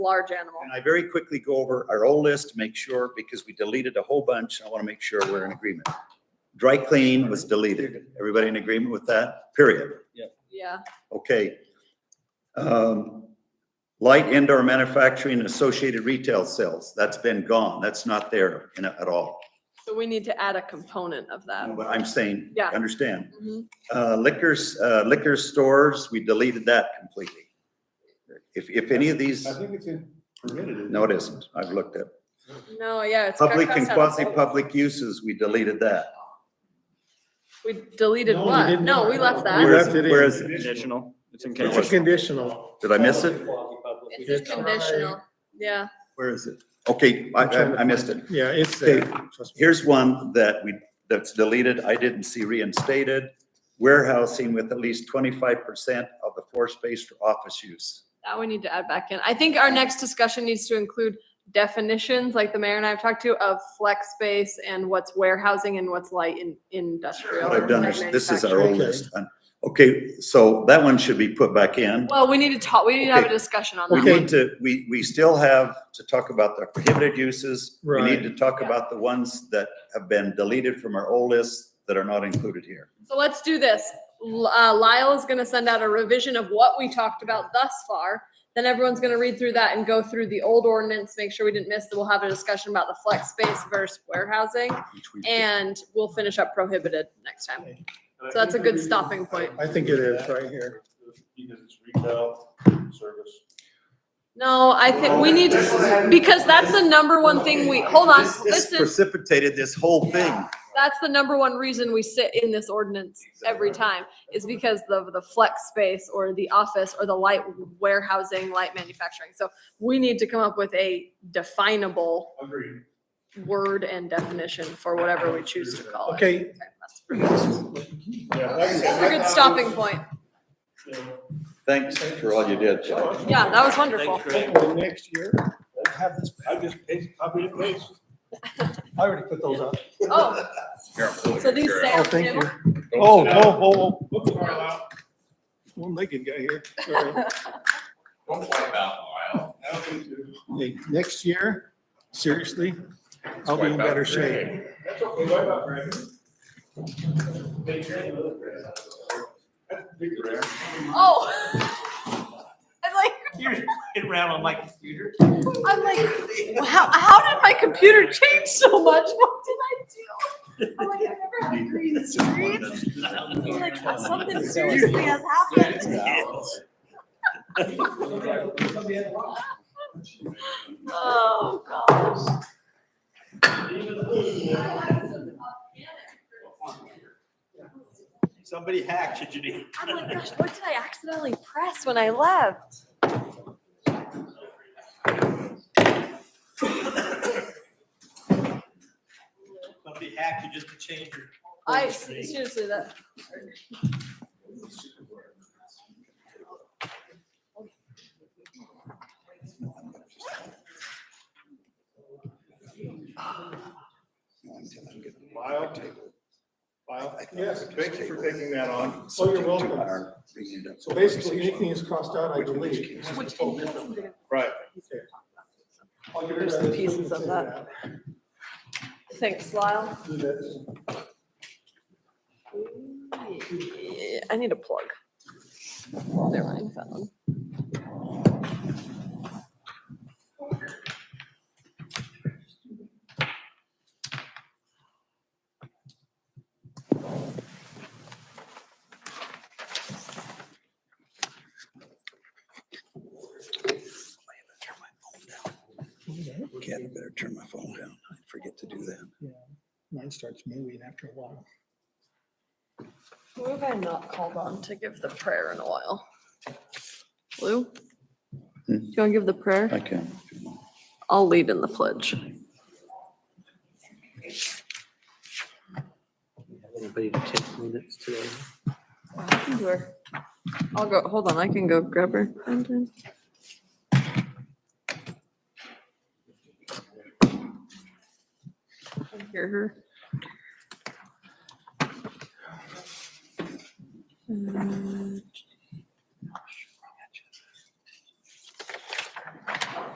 large animal. And I very quickly go over our old list, to make sure, because we deleted a whole bunch, and I want to make sure we're in agreement. Dry cleaning was deleted. Everybody in agreement with that? Period. Yeah, Okay. Um, Light indoor manufacturing and associated retail sales, that's been gone. That's not there in- at all. so we need to add a component of that. What I'm saying, Yeah. understand. Mhm. Uh, liquors, uh, liquor stores, we deleted that completely. If, if any of these, I think it's in permitted. isn't no, it isn't. I've looked at. No, yeah, it's. got Public and crossed out of both. quasi-public uses, we deleted that. We deleted No, we what? didn't. No, we left We that. Where's- left it in. whereas- Conditional. It's in It's a conditional. conditional. Did I miss it? It's a conditional, yeah. Where is it? Okay, I, I I missed it. Yeah, it's Okay. there. Trust me. Here's one that we, that's deleted. I didn't see reinstated. Warehousing with at least twenty-five percent of the floor space for office use. That we need to add back in. I think our next discussion needs to include definitions, like the mayor and I have talked to, of flex space and what's warehousing and what's light in, industrial. What I've done is, and this is our old Okay. list. And- Okay, so that one should be put back in. Well, we need to talk, we need to have a Okay. discussion on We that. need to, we, we still have to talk about the prohibited uses. We need Right. to talk about the ones that have been deleted from our old list that are not included here. So let's do this. L- uh, Lyle is gonna send out a revision of what we talked about thus far. Then everyone's gonna read through that and go through the old ordinance, make sure we didn't miss, that we'll have a discussion about the flex space versus warehousing. which we- And we'll finish up prohibited next time. So that's a good stopping point. I think it is right here. Because it's retail service. No, I think we need, to because that's the number one thing we, hold on, This- This listen, precipitated this whole thing. that's the number one reason we sit in this ordinance every time is because of the flex space or the office or the light warehousing, light manufacturing. So we need to come up with a definable Agreed. word and definition for whatever we choose to call it. Okay, That's Yeah. that's a good stopping point. Thanks for all you did, Chuck. Yeah, that was wonderful. hopefully next year, we'll have this. I just paste, copy and paste. I already put those up. Oh, so these stay Oh, on thank you. table? Oh, oh, oh, oh, Look, Carlisle. one legged guy here. Sorry. Don't worry about Lyle. Hey, Next year, seriously, I'll be in better shape. That's okay, worry about Brandon. Take care of the other Brandon. That's big, Brandon. Oh. I'm like, It ran on my computer. I'm like, how, how did my computer change so much? What did I do? I'm like, I've never had a green screen. I'm like, something seriously has happened. Oh, gosh. Somebody hacked you, Janine. I'm like, gosh, what did I accidentally press when I left? Somebody hacked you just to change your. I, seriously, that. Lyle. Lyle, yes, thank you for taking that on. Oh, you're welcome. So basically, anything that's crossed out, I delete. Right. There's the pieces of that. Thanks, Lyle. Do that. I need a plug. Never mind, found one. Cat, better turn my phone down. I forget to do that. Mine starts moving after a while. Who have I not called on to give the prayer in a while? Lou? Do you want to give the prayer? I can. I'll lead in the pledge. Anybody to take minutes today? I can do her. I'll go, hold on, I can go grab her. Brandon. I can Hear her. Um,